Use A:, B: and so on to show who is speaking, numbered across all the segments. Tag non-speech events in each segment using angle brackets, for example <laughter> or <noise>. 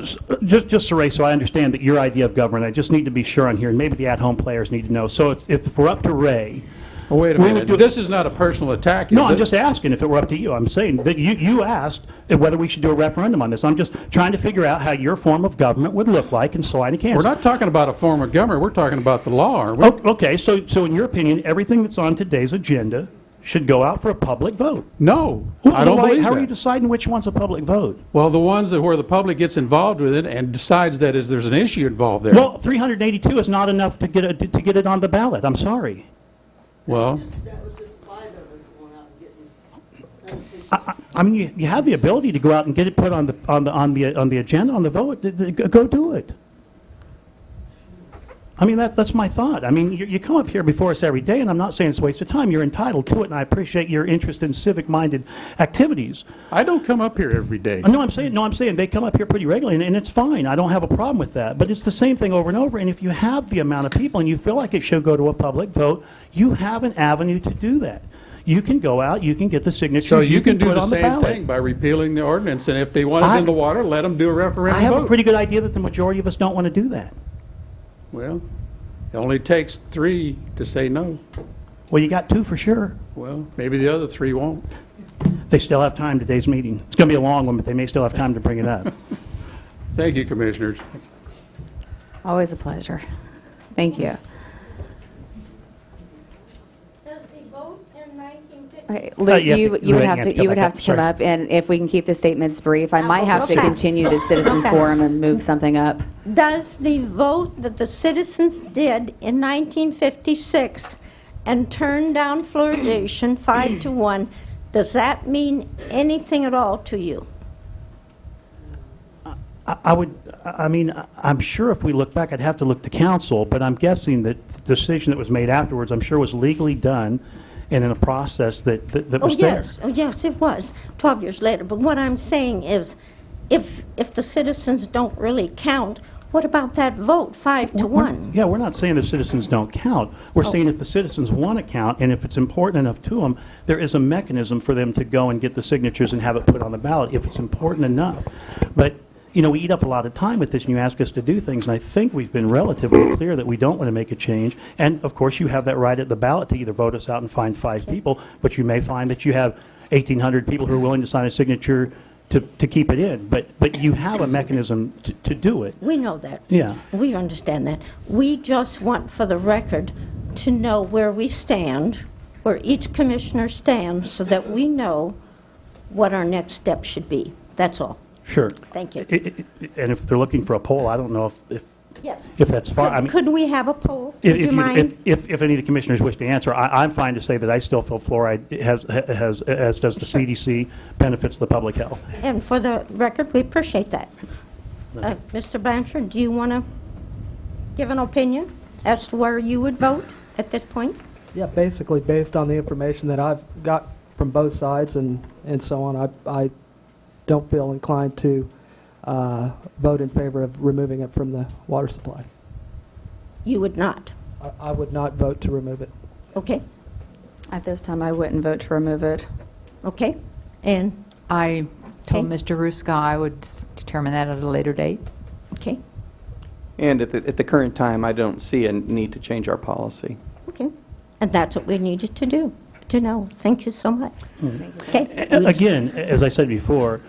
A: Just, just to raise, so I understand that your idea of government, I just need to be sure on here, and maybe the at-home players need to know. So it's- if we're up to Ray,
B: Oh, Wait a
A: We would do-
B: minute, this is not a personal attack, is it?
A: no, I'm just asking if it were up to you. I'm saying that you, you asked whether we should do a referendum on this. I'm just trying to figure out how your form of government would look like in Salina, Kansas.
B: We're not talking about a form of government, we're talking about the law, aren't we?
A: O- Okay, so, so in your opinion, everything that's on today's agenda should go out for a public vote?
B: No,
A: Who-
B: I don't
A: why-
B: believe
A: How are you
B: that.
A: deciding which one's a public vote?
B: Well, the ones that, where the public gets involved with it and decides that is, there's an issue involved there.
A: Well, 382 is not enough to get, it- to get it on the ballot, I'm sorry.
B: Well,
C: That was just five of us going out and getting,
A: I, I- I mean, you, you have the ability to go out and get it put on the, on the, on the, on the agenda, on the vote, Th- th- go- go do it. I mean, that, that's my thought. I mean, you, you come up here before us every day, and I'm not saying it's a waste of time, you're entitled to it, and I appreciate your interest in civic-minded activities.
B: I don't come up here every day.
A: Uh, No, I'm saying, no, I'm saying, they come up here pretty regularly, and, and it's fine, I don't have a problem with that, but it's the same thing over and over, and if you have the amount of people and you feel like it should go to a public vote, you have an avenue to do that. You can go out, you can get the signatures,
B: So you can do
A: put it
B: the
A: on the
B: same
A: ballot.
B: thing by repealing the ordinance, and if they want it
A: I-
B: in the water, let them do a
A: I
B: referendum
A: have a
B: vote.
A: pretty good idea that the majority of us don't want to do that.
B: Well, it only takes three to say no.
A: Well, you got two for sure.
B: Well, maybe the other three won't.
A: They still have time today's meeting. It's going to be a long one, but they may still have time to bring it
D: <laughs>
A: up.
B: Thank you, Commissioners.
E: Always a pleasure. Thank you.
D: Does the vote in 1950?
E: Okay,
A: Uh,
E: Luke,
A: you have
E: you,
A: to-
E: you would
A: Lorraine,
E: have to, you would have to come
A: back
E: up, and if we can keep the statements brief, I might have to
D: Oh, Okay.
E: continue the citizen
D: Okay.
E: forum and move something up.
D: Does the vote that the citizens did in 1956 and turned down fluoridation five to one, does that mean anything at all to you?
A: I- I would, I I mean, I- I'm sure if we look back, I'd have to look to council, but I'm guessing that the decision that was made afterwards, I'm sure was legally done and in a process that, that that
D: Oh,
A: was there.
D: yes, oh, yes, it was, 12 years later. But what I'm saying is, if, if the citizens don't really count, what about that vote, five to
A: We're-
D: one?
A: Yeah, we're not saying the citizens don't count. We're saying if the citizens want to count, and if it's important enough to them, there is a mechanism for them to go and get the signatures and have it put on the ballot, if it's important enough. But, you know, we eat up a lot of time with this, and you ask us to do things, and I think we've been relatively clear that we don't want to make a change. And, of course, you have that right at the ballot to either vote us out and find five people, but you may find that you have 1,800 people who are willing to sign a signature to, to keep it in. But, but you have a mechanism to, to do it.
D: We know that.
A: Yeah.
D: We understand that. We just want, for the record, to know where we stand, where each commissioner stands, so that we know what our next step should be. That's all.
A: Sure.
D: Thank you.
A: I- I- I- And if they're looking for a poll, I don't know if, if,
D: Yes.
A: if that's fine. I mean,
D: Could we have a poll?
A: if-
D: Would you
A: if you- if,
D: mind?
A: if, if any of the commissioners wish to answer, I, I'm fine to say that I still feel fluoride has, has, as does the CDC, benefits the public health.
D: And for the record, we appreciate that. Uh, Mr. Blanchard, do you want to give an opinion as to where you would vote at this point?
F: Yeah, basically, based on the information that I've got from both sides and, and so on, I, I don't feel inclined to uh, vote in favor of removing it from the water supply.
D: You would not.
F: I, I would not vote to remove it.
D: Okay?
E: At this time, I wouldn't vote to remove it.
D: Okay? And,
G: I told
D: Okay.
G: Mr. Ruska I would s- determine that at a later date.
D: okay?
H: And at the, at the current time, I don't see a need to change our policy.
D: Okay, and that's what we needed to do, to know. Thank you so much. Okay,
A: A- Again, as I said before,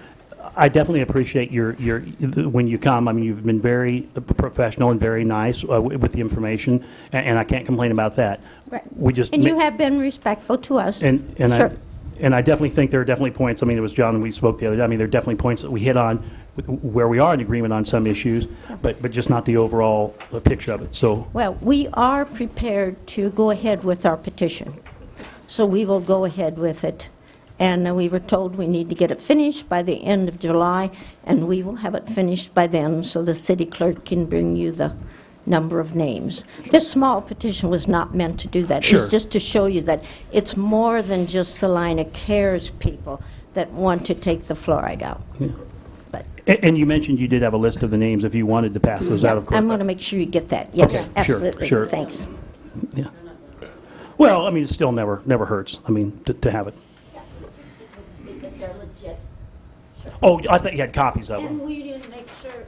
A: I definitely appreciate your, your, when you come, I mean, you've been very professional and very nice uh, wi- with the information, a- and I can't complain about that.
D: Right.
A: We just.
D: and
A: ma-
D: you have been respectful to us.
A: And, and I,
D: Sure.
A: and I definitely think there are definitely points, I mean, it was John, we spoke the other day, I mean, there are definitely points that we hit on with- where we are in agreement on some issues, but, but just not the overall uh, picture of it, so.
D: Well, we are prepared to go ahead with our petition, so we will go ahead with it. And uh, we were told we need to get it finished by the end of July, and we will have it finished by then, so the city clerk can bring you the number of names. This small petition was not meant to do that.
A: Sure.
D: It's just to show you that it's more than just Salina Cares people that want to take the fluoride out. But
A: A- And you mentioned you did have a list of the names if you wanted to pass those out, of course.
D: I'm going to make sure you get that. Yes,
A: Okay, sure,
D: absolutely.
A: sure.
D: Thanks.
A: Yeah. Well, I mean, it still never, never hurts, I mean, to, to have it. Oh, I thought you had copies of them.
D: we didn't make sure